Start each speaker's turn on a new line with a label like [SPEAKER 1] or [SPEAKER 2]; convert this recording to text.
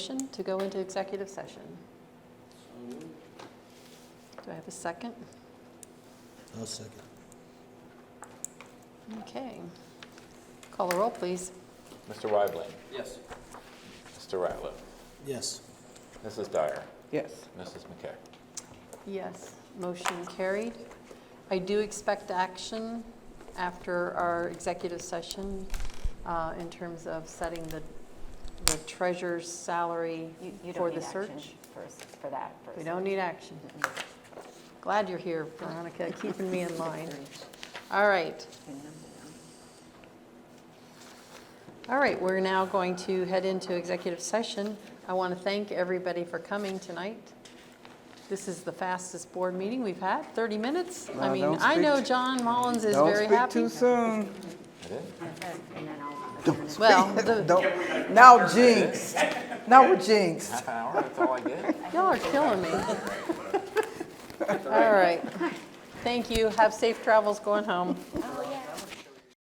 [SPEAKER 1] Motion to go into executive session. Do I have a second?
[SPEAKER 2] I'll second.
[SPEAKER 1] Okay. Call the roll, please.
[SPEAKER 3] Mr. Weibling,
[SPEAKER 4] Yes.
[SPEAKER 3] Mr. Ratliff,
[SPEAKER 2] Yes.
[SPEAKER 3] Mrs. Dyer,
[SPEAKER 4] Yes.
[SPEAKER 3] Mrs. McKay.
[SPEAKER 1] Yes, motion carried. I do expect action after our executive session uh, in terms of setting the the treasurer's salary
[SPEAKER 5] You, you
[SPEAKER 1] for
[SPEAKER 5] don't need
[SPEAKER 1] the
[SPEAKER 5] action
[SPEAKER 1] search.
[SPEAKER 5] for, s- for that. for
[SPEAKER 1] We
[SPEAKER 5] s-
[SPEAKER 1] don't need action.
[SPEAKER 5] Mm-mm.
[SPEAKER 1] Glad you're here, Veronica, keeping me in line. All right. All right, we're now going to head into executive session. I want to thank everybody for coming tonight. This is the fastest board meeting we've had, 30 minutes. I
[SPEAKER 4] Now,
[SPEAKER 1] mean,
[SPEAKER 4] don't
[SPEAKER 1] I
[SPEAKER 4] speak-
[SPEAKER 1] know John Mullins is
[SPEAKER 4] Don't
[SPEAKER 1] very
[SPEAKER 4] speak
[SPEAKER 1] happy.
[SPEAKER 4] too soon.
[SPEAKER 5] And then I'll. Don't
[SPEAKER 1] Well, the-
[SPEAKER 4] Don't. Now jinx. Now we're jinxed.
[SPEAKER 3] Half an hour, that's all I get?
[SPEAKER 1] y'all are killing me. All right. Thank you. Have safe travels going home.